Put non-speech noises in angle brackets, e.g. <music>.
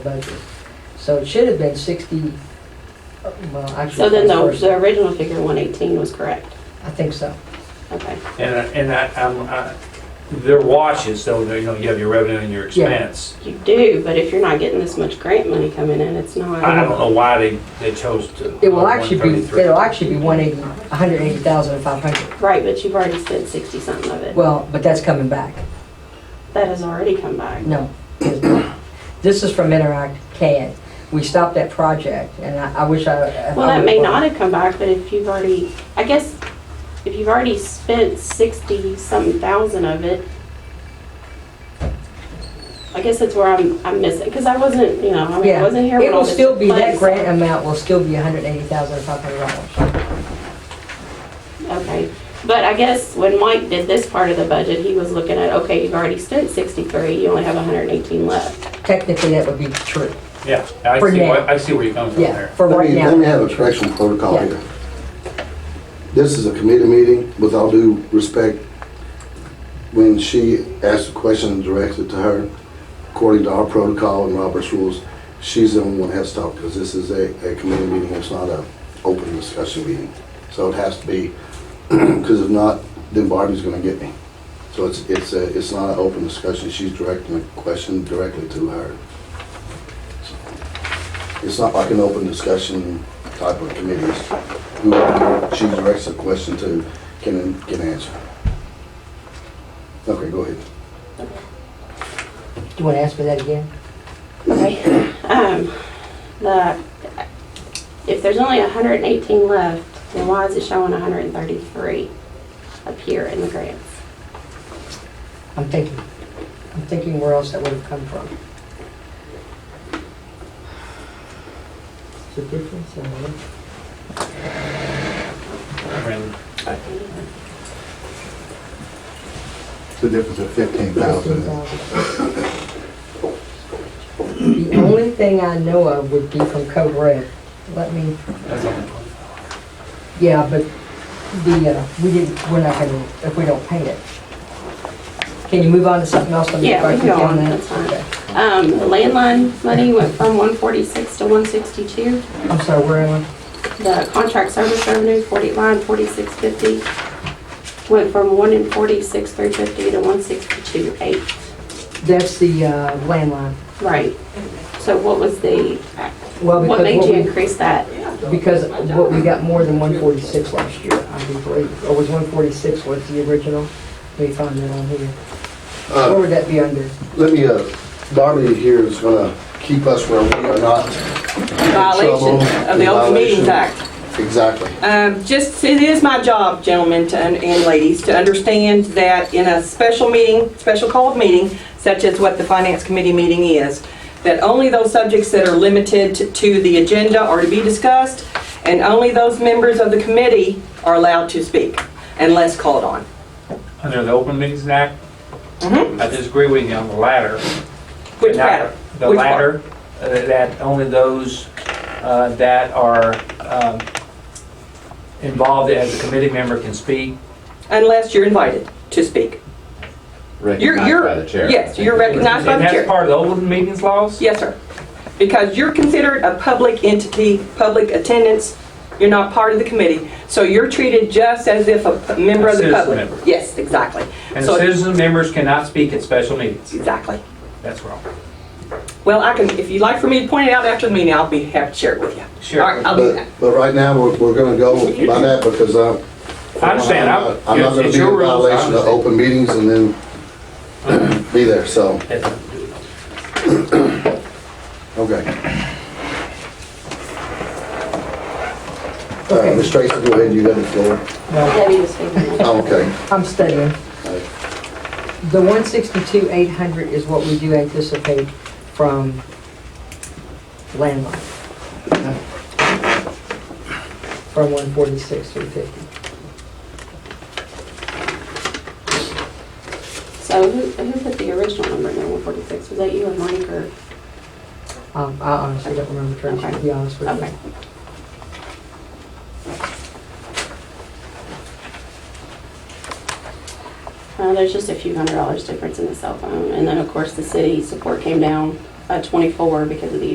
budget. So it should have been sixty, uh, well, actually. So then the, first- the original figure, 118, was correct? I think so. Uh, Okay. And, I- and I, I'm, I, they're watches, so, they- you know, you have your revenue and your expense. You do, but if you're not getting this much grant money coming in, it's not. I don't know why they, they chose to. uh, It will actually be, 133. it'll actually be one eighty, hundred eighty thousand five hundred. Right, but you've already spent 60 something of it. Well, but that's coming back. That has already come back. No. it's not. This is from Interact CAD. We stopped that project and I, I wish I. if Well, I that may would've- not have come back, but if you've already, I guess, if you've already spent 60 something thousand of it, I guess that's where I'm, I'm missing, because I wasn't, you know, I mean, I Yeah. wasn't here when It all will this still took be, that place. grant amount will still be hundred eighty thousand five hundred dollars. Okay, but I guess when Mike did this part of the budget, he was looking at, okay, you've already spent 63, you only have 118 left. Technically, that would be true. Yeah, I For see, now. where- I see where you're coming from Yeah, there. for Let right me, let me now. have a correction protocol Yeah. here. This is a committee meeting, with all due respect, when she asked a question directed to her, according to our protocol and Robert's rules, she's the only one that has to talk, because this is a, a committee meeting, it's not a open discussion meeting. So it has to be, <clears throat> because if not, then Barbie's gonna get me. So it's, it's a, it's not an open discussion, she's directing a question directly to her. It's not like an open discussion type of committees. Whoever she directs a question to can, can answer. Okay, go ahead. Do you want to ask me that again? Okay. Um, The, if there's only 118 left, then why is it showing 133 up here in the grants? I'm thinking, I'm thinking where else that would have come from. The difference in what? I mean, The difference of fifteen thousand. The only thing I know of would be from Code Red. Let me, that's all. yeah, but the, uh, we didn't, we're not gonna, if we don't pay it. Can you move on to something else? Let me Yeah, we write can it go on, down. that's fine. Um, the Landline money went from 146 to 162. I'm sorry, where am The contract service revenue, 40, line 4650, went from 1 in 46,350 to 162,8. I? That's the uh, landline. Right. So what was the, Well, what because made what you we- increase that? Because what we got more than one forty-six last year, I do believe, or was one forty-six was the original? Let me find that on here. What Uh, would that be under? Let me, uh, Darby here is gonna keep us where we are not in trouble. violation of the Open Meetings Violation. Act. Exactly. Um, just, it is my job, gentlemen to- and ladies, to understand that in a special meeting, special called meeting, such as what the Finance Committee meeting is, that only those subjects that are limited to- to the agenda are to be discussed, and only those members of the committee are allowed to speak unless called on. Under the Open Meetings Act, Mhm. Mm-hmm. I disagree with you on the latter. Which Not- matter? The Which part? latter, uh, that only those uh, that are um, involved as a committee member can speak. Unless you're invited to speak. You're- recognized you're- by the chair. Yes, you're recognized by And the chair. that's part of the Open Meetings laws? Yes, sir. Because you're considered a public entity, public attendance, you're not part of the committee, so you're treated just as if a p- member of the Citizen public. member. Yes, exactly. And So- citizen members cannot speak at special meetings. Exactly. That's wrong. Well, I can, if you'd like for me to point it out after the meeting, I'll be happy to share it with you. Sure. All right, I'll do But, that. but right now, we're, we're gonna go by that because, uh. I understand. I'm I'm- not- I'm not gonna it's be in your rules. I violation of understand. open meetings and then be there, so, okay. Uh, Ms. Tracy, go ahead, you got the floor. No, Debbie was figuring it out. Oh, okay. Uh, I'm studying. The one sixty-two, eight hundred is what we do anticipate from landline. From one forty-six, three fifty. So who, who put the original number in there, 146? Was that you and Mike or? Um, I honestly don't remember, Tracy, to be honest with you. Okay. Uh, there's just a few hundred dollars difference in the cell phone. And then, of course, the city support came down a 24 because of the